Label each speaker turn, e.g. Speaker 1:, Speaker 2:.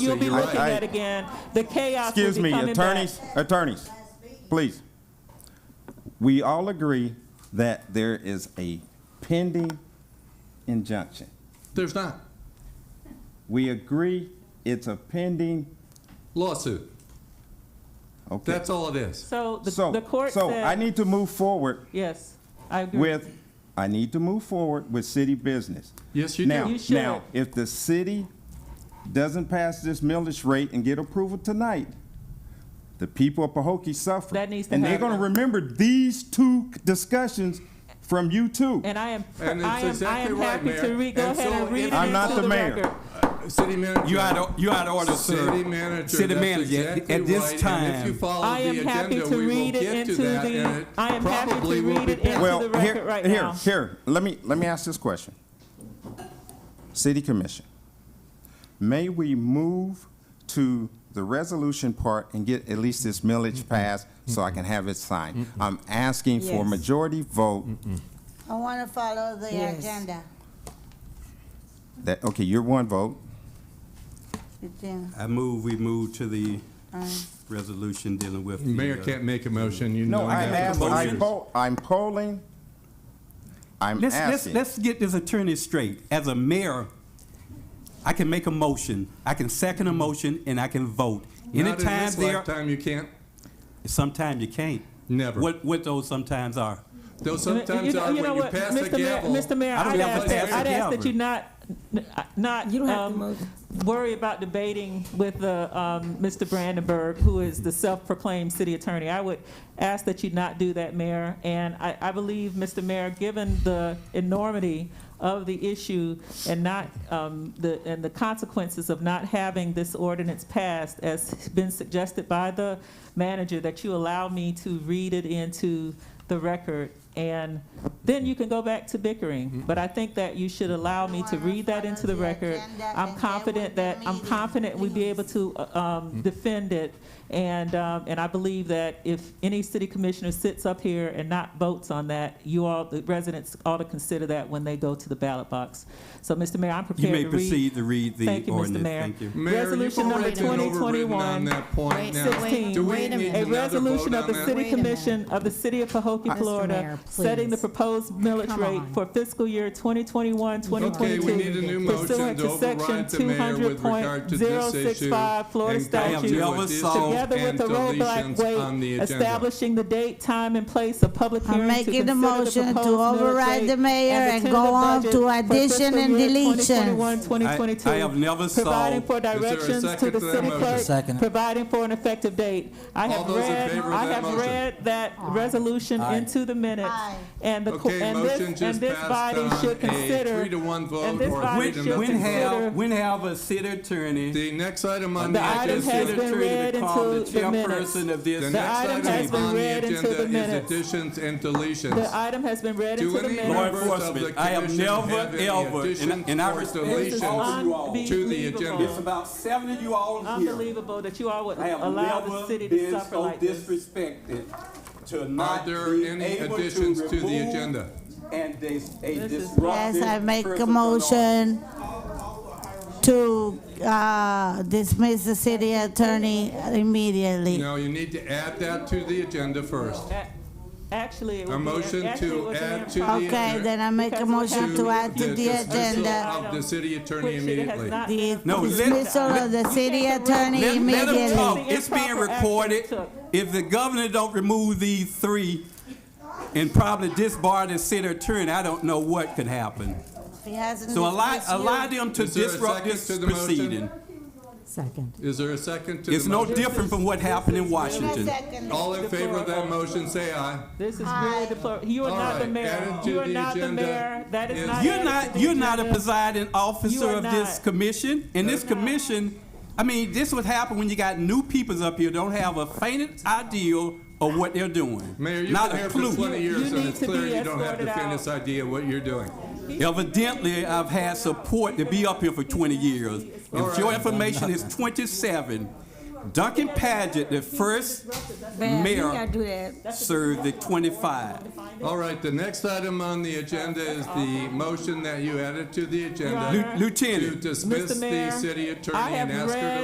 Speaker 1: you'll be
Speaker 2: you're right.
Speaker 1: looking
Speaker 2: I-
Speaker 1: at again. The chaos will
Speaker 2: Excuse
Speaker 1: be
Speaker 2: me,
Speaker 1: coming back.
Speaker 2: attorneys, attorneys, please. We all agree that there is a pending injunction.
Speaker 3: There's not.
Speaker 2: We agree it's a pending,
Speaker 3: Lawsuit.
Speaker 2: okay.
Speaker 3: That's all it is.
Speaker 1: So the,
Speaker 2: So-
Speaker 1: the court
Speaker 2: So
Speaker 1: said, Hmm.
Speaker 2: I need to move forward
Speaker 1: yes, I agree.
Speaker 2: with, I need to move forward with city business.
Speaker 3: Yes, you do.
Speaker 2: Now,
Speaker 1: You should.
Speaker 2: now, if the city doesn't pass this millage rate and get approval tonight, the people of Pahokee suffer.
Speaker 1: That needs to
Speaker 2: And they're
Speaker 1: happen.
Speaker 2: gonna remember these two discussions from you two.
Speaker 1: and I am,
Speaker 3: And it's
Speaker 1: I am, I
Speaker 3: exactly
Speaker 1: am
Speaker 3: right,
Speaker 1: happy to
Speaker 3: Mayor.
Speaker 1: re- go
Speaker 3: And
Speaker 1: ahead
Speaker 3: so
Speaker 1: and read
Speaker 3: if-
Speaker 1: it
Speaker 2: I'm not
Speaker 1: into
Speaker 2: the mayor.
Speaker 1: record.
Speaker 3: City manager.
Speaker 4: You out of, you out of order, sir.
Speaker 3: City manager.
Speaker 4: City
Speaker 3: that's
Speaker 4: manager, at-
Speaker 3: exactly
Speaker 4: at this
Speaker 3: right, and if you
Speaker 4: time,
Speaker 3: follow
Speaker 1: I
Speaker 3: the
Speaker 1: am happy
Speaker 3: agenda,
Speaker 1: to
Speaker 3: we will
Speaker 1: read it
Speaker 3: get to
Speaker 1: into
Speaker 3: that,
Speaker 1: the-
Speaker 3: and it
Speaker 1: I am happy to
Speaker 3: probably will
Speaker 1: read
Speaker 3: be
Speaker 1: it into
Speaker 3: passed.
Speaker 1: the
Speaker 2: Well,
Speaker 1: record
Speaker 2: here,
Speaker 1: right
Speaker 2: here,
Speaker 1: now.
Speaker 2: here. Let me let me ask this question. City Commission, may we move to the resolution part and get at least this millage passed so I can have it signed? I'm asking for
Speaker 5: Yes.
Speaker 2: majority vote.
Speaker 5: I want to follow the
Speaker 6: Yes.
Speaker 5: agenda.
Speaker 2: That okay, you're one vote.
Speaker 5: It's,
Speaker 7: I move, we move to the resolution dealing with. the,
Speaker 3: Mayor
Speaker 7: uh,
Speaker 3: can't make a motion, you know.
Speaker 2: No, I'm
Speaker 3: that.
Speaker 2: asking. I'm,
Speaker 7: Voters.
Speaker 2: po- I'm polling. I'm
Speaker 7: Let's, let's,
Speaker 2: asking.
Speaker 7: let's get this attorney straight. As a mayor, I can make a motion, I can second a motion, and I can vote.
Speaker 3: Not in
Speaker 7: Anytime
Speaker 3: this
Speaker 7: there,
Speaker 3: lifetime, you can't.
Speaker 7: sometime you can't.
Speaker 3: Never.
Speaker 7: What, what those sometimes are.
Speaker 1: You
Speaker 3: Though
Speaker 1: know-
Speaker 3: sometimes
Speaker 1: you know-
Speaker 3: are,
Speaker 1: you know
Speaker 3: when you
Speaker 1: what,
Speaker 3: pass
Speaker 1: Mr.
Speaker 3: the gavel.
Speaker 1: Mayor, Mr. Mayor,
Speaker 7: I don't
Speaker 1: I'd
Speaker 7: think I'm
Speaker 1: ask,
Speaker 7: gonna pass
Speaker 1: I'd
Speaker 7: the
Speaker 1: ask that
Speaker 7: gavel.
Speaker 1: you not, n- not
Speaker 6: You don't have to
Speaker 1: um,
Speaker 6: move.
Speaker 1: worry about debating with the, um, Mr. Brandenburg, who is the self-proclaimed city attorney. I would ask that you not do that, Mayor. And I, I believe, Mr. Mayor, given the enormity of the issue and not, um, the, and the consequences of not having this ordinance passed, as been suggested by the manager, that you allow me to read it into the record. And then you can go back to bickering. But I think that you should allow me to read that into the record. I'm confident that, I'm confident we'd be able to uh,
Speaker 7: Mm-hmm.
Speaker 1: um, defend it. And, um, and I believe that if any city commissioner sits up here and not votes on that, you all, the residents ought to consider that when they go to the ballot box. So, Mr. Mayor, I'm
Speaker 7: You
Speaker 1: prepared
Speaker 7: may
Speaker 1: to read.
Speaker 7: proceed to read the
Speaker 1: Thank you, Mr.
Speaker 7: ordinance.
Speaker 1: Mayor.
Speaker 7: Thank you.
Speaker 3: Mayor, you've
Speaker 1: Resolution number
Speaker 3: already been overridden on
Speaker 1: 2021,
Speaker 3: that point
Speaker 6: Wait,
Speaker 3: now.
Speaker 1: wait,
Speaker 3: Do we
Speaker 6: wait a
Speaker 3: need
Speaker 1: A
Speaker 6: minute.
Speaker 3: another
Speaker 1: resolution
Speaker 3: vote
Speaker 1: of
Speaker 3: on
Speaker 1: the
Speaker 3: that?
Speaker 1: City
Speaker 6: Wait a minute.
Speaker 1: Commission of the City of Pahokee,
Speaker 6: Mr.
Speaker 1: Florida,
Speaker 6: Mayor,
Speaker 1: setting the
Speaker 6: please.
Speaker 1: proposed millage
Speaker 6: Come
Speaker 1: rate
Speaker 6: on.
Speaker 1: for fiscal year 2021, 2022.
Speaker 3: Okay, we need a new motion
Speaker 1: pursuant
Speaker 3: to override the
Speaker 1: Section
Speaker 3: mayor with regard to this issue.
Speaker 1: 200.065 Florida
Speaker 3: and go
Speaker 1: statute,
Speaker 3: to
Speaker 7: I
Speaker 3: additions
Speaker 7: have never
Speaker 1: Together with
Speaker 3: and
Speaker 1: the roadblock
Speaker 3: deletions on the
Speaker 1: weight,
Speaker 3: agenda.
Speaker 1: establishing the date, time, and place of public
Speaker 5: I'm
Speaker 1: hearing to
Speaker 5: making
Speaker 1: consider
Speaker 5: the
Speaker 1: the proposed
Speaker 5: motion to override
Speaker 1: millage
Speaker 5: the
Speaker 1: rate
Speaker 5: mayor
Speaker 1: and
Speaker 5: and
Speaker 1: the
Speaker 5: go
Speaker 1: tentative
Speaker 5: on
Speaker 1: budget
Speaker 5: to
Speaker 1: for
Speaker 5: addition
Speaker 1: fiscal
Speaker 5: and
Speaker 1: year
Speaker 5: deletions.
Speaker 1: 2021, 2022.
Speaker 7: I- I have never saw-
Speaker 1: Providing for
Speaker 3: there a
Speaker 1: directions to
Speaker 3: second
Speaker 1: the
Speaker 3: to that
Speaker 1: city
Speaker 3: motion?
Speaker 1: clerk,
Speaker 4: Second.
Speaker 1: providing for an effective date. I
Speaker 3: All
Speaker 1: have
Speaker 3: those in
Speaker 1: read,
Speaker 3: favor of
Speaker 1: I
Speaker 3: that
Speaker 1: have
Speaker 3: motion?
Speaker 1: read that resolution
Speaker 4: Aye.
Speaker 1: into the minutes.
Speaker 5: Aye.
Speaker 1: And the, co-
Speaker 3: Okay,
Speaker 1: and this,
Speaker 3: motion just
Speaker 1: and this
Speaker 3: passed
Speaker 1: body
Speaker 3: on
Speaker 1: should
Speaker 3: a
Speaker 1: consider.
Speaker 3: three to one vote
Speaker 1: and this
Speaker 3: or
Speaker 1: body
Speaker 3: three to
Speaker 1: should
Speaker 3: nothing
Speaker 7: When
Speaker 1: consider-
Speaker 7: have, when have a city attorney,
Speaker 3: The next item on the
Speaker 1: The item
Speaker 3: agenda.
Speaker 1: has been
Speaker 7: city attorney
Speaker 1: read
Speaker 7: to call the
Speaker 1: into the minutes.
Speaker 7: chairperson of
Speaker 3: The
Speaker 7: this?
Speaker 3: next
Speaker 1: item
Speaker 3: item
Speaker 1: has been
Speaker 3: on the
Speaker 1: read into
Speaker 3: agenda
Speaker 1: the
Speaker 3: is
Speaker 1: minutes.
Speaker 3: additions and
Speaker 1: The
Speaker 3: deletions.
Speaker 1: item has been read
Speaker 3: Do
Speaker 1: into the
Speaker 3: any
Speaker 7: Law
Speaker 1: minutes.
Speaker 3: members of the
Speaker 7: enforcement, I have
Speaker 3: commission
Speaker 7: never,
Speaker 3: have any
Speaker 7: ever, and- and
Speaker 3: additions
Speaker 7: I
Speaker 3: or
Speaker 7: respect
Speaker 1: This is
Speaker 3: deletions?
Speaker 7: all you all.
Speaker 3: to the agenda.
Speaker 7: It's
Speaker 1: unbelievable.
Speaker 7: about seven of you all here.
Speaker 1: Unbelievable that you all would
Speaker 7: I have
Speaker 1: allow the
Speaker 7: never
Speaker 1: city
Speaker 7: been
Speaker 1: to suffer
Speaker 7: so
Speaker 1: like this.
Speaker 7: disrespected to not
Speaker 3: there
Speaker 7: be
Speaker 3: any
Speaker 7: able to
Speaker 3: additions to the
Speaker 7: remove
Speaker 3: agenda?
Speaker 7: And dis- a
Speaker 1: This is-
Speaker 5: Yes,
Speaker 7: disruptive
Speaker 5: I make
Speaker 7: person
Speaker 5: a
Speaker 7: from office.
Speaker 5: motion to uh, dismiss the city attorney immediately.
Speaker 3: No, you need to add that to the agenda first.
Speaker 1: A- Actually, it
Speaker 3: A
Speaker 1: would be,
Speaker 3: motion
Speaker 1: an- actually, it
Speaker 3: to
Speaker 1: was an
Speaker 3: add to the.
Speaker 1: improper-
Speaker 5: Okay,
Speaker 3: agenda-
Speaker 5: then I make a
Speaker 1: Because what
Speaker 5: motion to add to the
Speaker 3: dismissal
Speaker 5: agenda.
Speaker 3: Of the city attorney
Speaker 1: which it has
Speaker 3: immediately.
Speaker 1: not
Speaker 5: The
Speaker 1: been-
Speaker 7: No, let-
Speaker 5: dismissal of the city attorney
Speaker 7: Let, let him talk.
Speaker 5: immediately.
Speaker 1: Immediately.
Speaker 7: It's being
Speaker 1: Improper action
Speaker 7: recorded.
Speaker 1: took.
Speaker 7: If the governor don't remove these three and probably disbar the city attorney, I don't know what could happen.
Speaker 5: He hasn't
Speaker 7: So allow,
Speaker 5: dismissed you.
Speaker 7: allow them to
Speaker 3: Is there a
Speaker 7: disrupt
Speaker 3: second
Speaker 7: this
Speaker 3: to the motion?
Speaker 7: proceeding.
Speaker 6: Second.
Speaker 3: Is there a second to
Speaker 7: It's
Speaker 3: the
Speaker 7: no
Speaker 3: motion?
Speaker 7: different from what happened in
Speaker 5: Give me a
Speaker 7: Washington.
Speaker 5: second.
Speaker 3: All in favor of that motion, say aye.
Speaker 1: This is really deplorable. You are
Speaker 3: All
Speaker 1: not the
Speaker 3: right,
Speaker 1: mayor.
Speaker 3: added to
Speaker 1: You are
Speaker 3: the
Speaker 1: not the
Speaker 3: agenda
Speaker 1: mayor. That is
Speaker 3: is-
Speaker 1: not.
Speaker 7: You're
Speaker 1: added to
Speaker 7: not,
Speaker 1: the
Speaker 7: you're not a
Speaker 1: agenda.
Speaker 7: presiding officer
Speaker 1: are
Speaker 7: of this
Speaker 1: not.
Speaker 7: commission, and this commission, I mean, this would happen when you got new peoples up here, don't have a faint idea of what they're doing.
Speaker 3: Mayor, you've
Speaker 7: Not
Speaker 3: been
Speaker 7: a
Speaker 3: here for
Speaker 7: clue.
Speaker 3: 20 years, and
Speaker 1: need
Speaker 3: it's
Speaker 1: to
Speaker 3: clear
Speaker 1: be
Speaker 3: you don't have the
Speaker 1: escorted out.
Speaker 3: faintest idea what you're doing.
Speaker 7: Evidently, I've had support to be up here for 20 years. If your information is 27, Duncan Paget, the first mayor,
Speaker 5: do that.
Speaker 7: served the 25.
Speaker 3: All right, the next item on the agenda is the motion that you added to the
Speaker 1: Your
Speaker 3: agenda
Speaker 1: Honor.
Speaker 7: Lieu-
Speaker 3: to
Speaker 7: Lieutenant,
Speaker 3: dismiss
Speaker 1: Mr.
Speaker 3: the
Speaker 1: Mayor,
Speaker 3: city
Speaker 1: I
Speaker 3: attorney
Speaker 1: have
Speaker 3: and ask her to
Speaker 1: read